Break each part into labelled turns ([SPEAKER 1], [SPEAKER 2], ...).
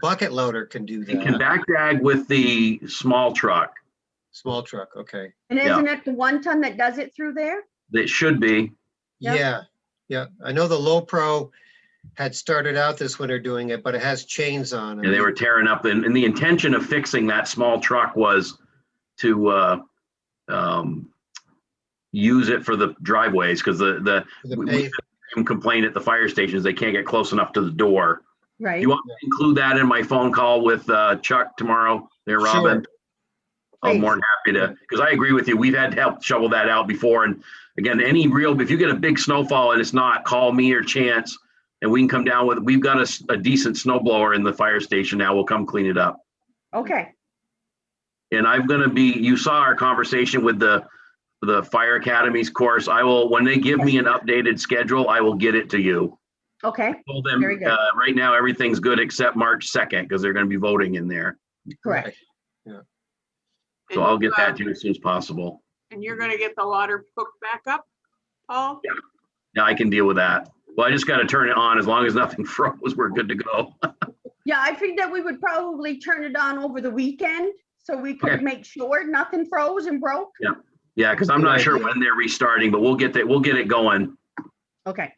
[SPEAKER 1] bucket loader can do
[SPEAKER 2] You can
[SPEAKER 1] that.
[SPEAKER 2] back drag with the small truck.
[SPEAKER 1] Small truck, okay.
[SPEAKER 3] And
[SPEAKER 2] Yeah.
[SPEAKER 3] isn't it the one ton that does it through there?
[SPEAKER 2] That should be.
[SPEAKER 3] Yeah.
[SPEAKER 1] Yeah, yeah. I know the Low Pro had started out this winter doing it, but it has chains on
[SPEAKER 2] And they
[SPEAKER 1] it.
[SPEAKER 2] were tearing up. And, and the intention of fixing that small truck was to uh, um, use it for the driveways because the, the
[SPEAKER 1] for the
[SPEAKER 2] we- we-
[SPEAKER 1] pave-
[SPEAKER 2] some complaint at the fire stations, they can't get close enough to the door.
[SPEAKER 3] Right.
[SPEAKER 2] You want me to include that in my phone call with uh, Chuck tomorrow there, Robin? I'm
[SPEAKER 3] Please.
[SPEAKER 2] more than happy to, because I agree with you. We've had to help shovel that out before. And again, any real, if you get a big snowfall and it's not, call me or Chance. And we can come down with, we've got a, s- a decent snow blower in the fire station now. We'll come clean it up.
[SPEAKER 3] Okay,
[SPEAKER 2] And I'm gonna be, you saw our conversation with the, the fire academies course. I will, when they give me an updated schedule, I will get it to you.
[SPEAKER 3] okay,
[SPEAKER 2] Told them,
[SPEAKER 3] Very good.
[SPEAKER 2] uh, right now, everything's good except March 2nd, because they're gonna be voting in there.
[SPEAKER 3] correct.
[SPEAKER 1] Right.
[SPEAKER 2] So
[SPEAKER 4] And
[SPEAKER 2] I'll
[SPEAKER 4] you,
[SPEAKER 2] get
[SPEAKER 4] uh,
[SPEAKER 2] that to you as soon as possible.
[SPEAKER 4] And you're gonna get the water hooked back up, Paul?
[SPEAKER 2] Yeah, I can deal with that. Well, I just gotta turn it on. As long as nothing froze, we're good to go.
[SPEAKER 3] Yeah, I think that we would probably turn it on over the weekend so we could
[SPEAKER 2] Okay.
[SPEAKER 3] make sure nothing froze and broke.
[SPEAKER 2] Yeah, because I'm not
[SPEAKER 1] Good
[SPEAKER 2] sure
[SPEAKER 1] idea.
[SPEAKER 2] when they're restarting, but we'll get that, we'll get it going.
[SPEAKER 3] Okay,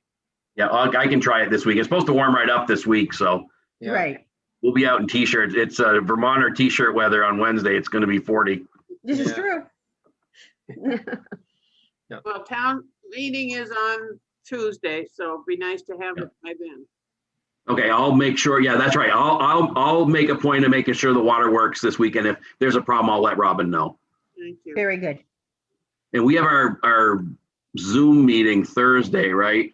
[SPEAKER 2] Yeah, I'll- I can try it this week. It's supposed to warm right up this week, so
[SPEAKER 1] yeah.
[SPEAKER 3] right.
[SPEAKER 2] we'll be out in t-shirts. It's uh, Vermonter t-shirt weather on Wednesday. It's gonna be 40.
[SPEAKER 3] This is
[SPEAKER 1] Yeah.
[SPEAKER 3] true.
[SPEAKER 4] Well, town meeting is on Tuesday, so it'd be nice to have it by then.
[SPEAKER 2] Okay, I'll make sure. Yeah, that's right. I'll, I'll, I'll make a point of making sure the water works this weekend. If there's a problem, I'll let Robin know.
[SPEAKER 4] Thank you.
[SPEAKER 3] Very good.
[SPEAKER 2] And we have our, our Zoom meeting Thursday, right?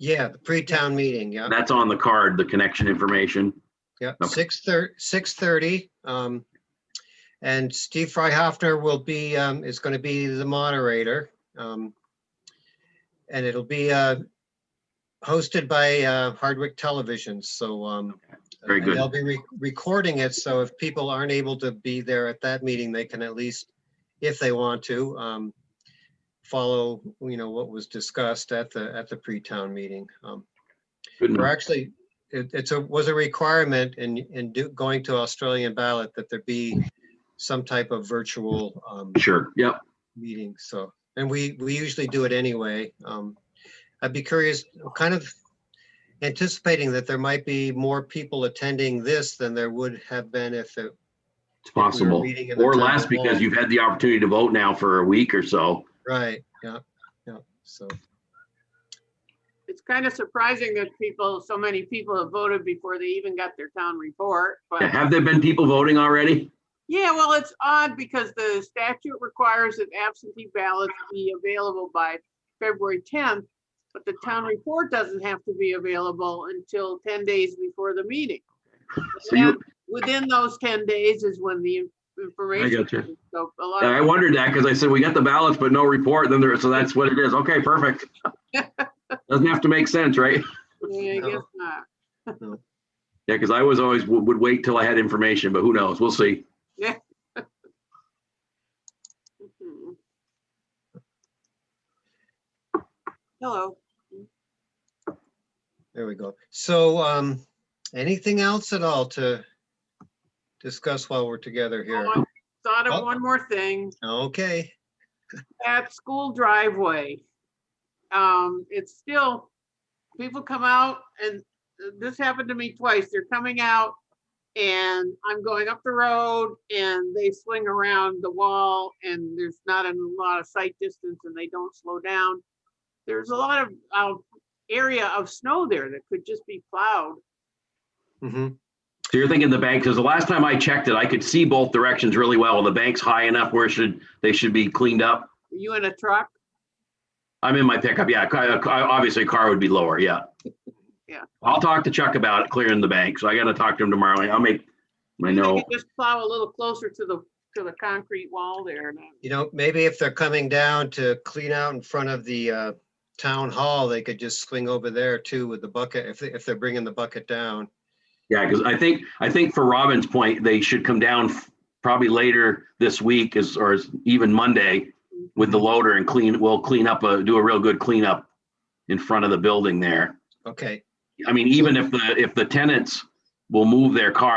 [SPEAKER 1] Yeah, the pre-town meeting, yeah.
[SPEAKER 2] That's on the card, the connection information.
[SPEAKER 1] Yeah,
[SPEAKER 2] Okay.
[SPEAKER 1] six thirty, six thirty. Um, and Steve Freihafner will be, um, is going to be the moderator. Um, and it'll be, uh, hosted by, uh, Hardwick Television. So, um,
[SPEAKER 2] Very
[SPEAKER 1] and
[SPEAKER 2] good.
[SPEAKER 1] They'll be re- recording it. So if people aren't able to be there at that meeting, they can at least, if they want to, um, follow, you know, what was discussed at the, at the pre-town meeting. Um,
[SPEAKER 2] Good
[SPEAKER 1] or
[SPEAKER 2] enough.
[SPEAKER 1] actually, it, it's a, was a requirement in, in do, going to Australian ballot that there be some type of virtual, um,
[SPEAKER 2] Sure. Yep.
[SPEAKER 1] meeting, so, and we, we usually do it anyway. Um, I'd be curious, kind of anticipating that there might be more people attending this than there would have been if it,
[SPEAKER 2] It's possible.
[SPEAKER 1] meeting in the
[SPEAKER 2] Or
[SPEAKER 1] town
[SPEAKER 2] less
[SPEAKER 1] hall.
[SPEAKER 2] because you've had the opportunity to vote now for a week or so.
[SPEAKER 1] right, yeah, yeah, so,
[SPEAKER 4] It's kind of surprising that people, so many people have voted before they even got their town report, but.
[SPEAKER 2] Yeah, Have there been people voting already?
[SPEAKER 4] Yeah, well, it's odd because the statute requires that absentee ballots be available by February tenth, but the town report doesn't have to be available until ten days before the meeting.
[SPEAKER 2] So you,
[SPEAKER 4] And Within those ten days is when the in- information.
[SPEAKER 2] gotcha.
[SPEAKER 4] comes. So a lot
[SPEAKER 2] I
[SPEAKER 4] of,
[SPEAKER 2] wondered that because I said, we got the ballots, but no report. Then there, so that's what it is. Okay, perfect. Doesn't have to make sense, right?
[SPEAKER 4] yeah, I guess not.
[SPEAKER 2] Yeah, because I was always, would would wait till I had information, but who knows? We'll see.
[SPEAKER 4] Mhm. Hello,
[SPEAKER 1] there we go. So, um, anything else at all to discuss while we're together here?
[SPEAKER 4] Oh, I thought of
[SPEAKER 1] Oh.
[SPEAKER 4] one more thing.
[SPEAKER 1] Okay,
[SPEAKER 4] at school driveway. Um, it's still, people come out and this happened to me twice. They're coming out and I'm going up the road and they swing around the wall and there's not a lot of sight distance and they don't slow down. There's a lot of, uh, area of snow there that could just be plowed.
[SPEAKER 1] mhm,
[SPEAKER 2] So you're thinking the bank, because the last time I checked it, I could see both directions really well. The bank's high enough where it should, they should be cleaned up.
[SPEAKER 4] Are you in a truck?
[SPEAKER 2] I'm in my pickup. Yeah, ca- uh, ca- obviously a car would be lower. Yeah.
[SPEAKER 4] Yeah.
[SPEAKER 2] I'll talk to Chuck about it clearing the bank. So I got to talk to him tomorrow. I'll make my
[SPEAKER 4] You
[SPEAKER 2] note.
[SPEAKER 4] could Just plow a little closer to the, to the concrete wall there. and
[SPEAKER 1] you know, maybe if they're coming down to clean out in front of the, uh, town hall, they could just swing over there too with the bucket, if, they- if they're bringing the bucket down.
[SPEAKER 2] Yeah, because I think, I think for Robin's point, they should come down f- probably later this week is, or is even Monday with the loader and clean, we'll clean up, a do a real good cleanup in front of the building there.
[SPEAKER 1] Okay,
[SPEAKER 2] I mean, even if the, if the tenants will move their car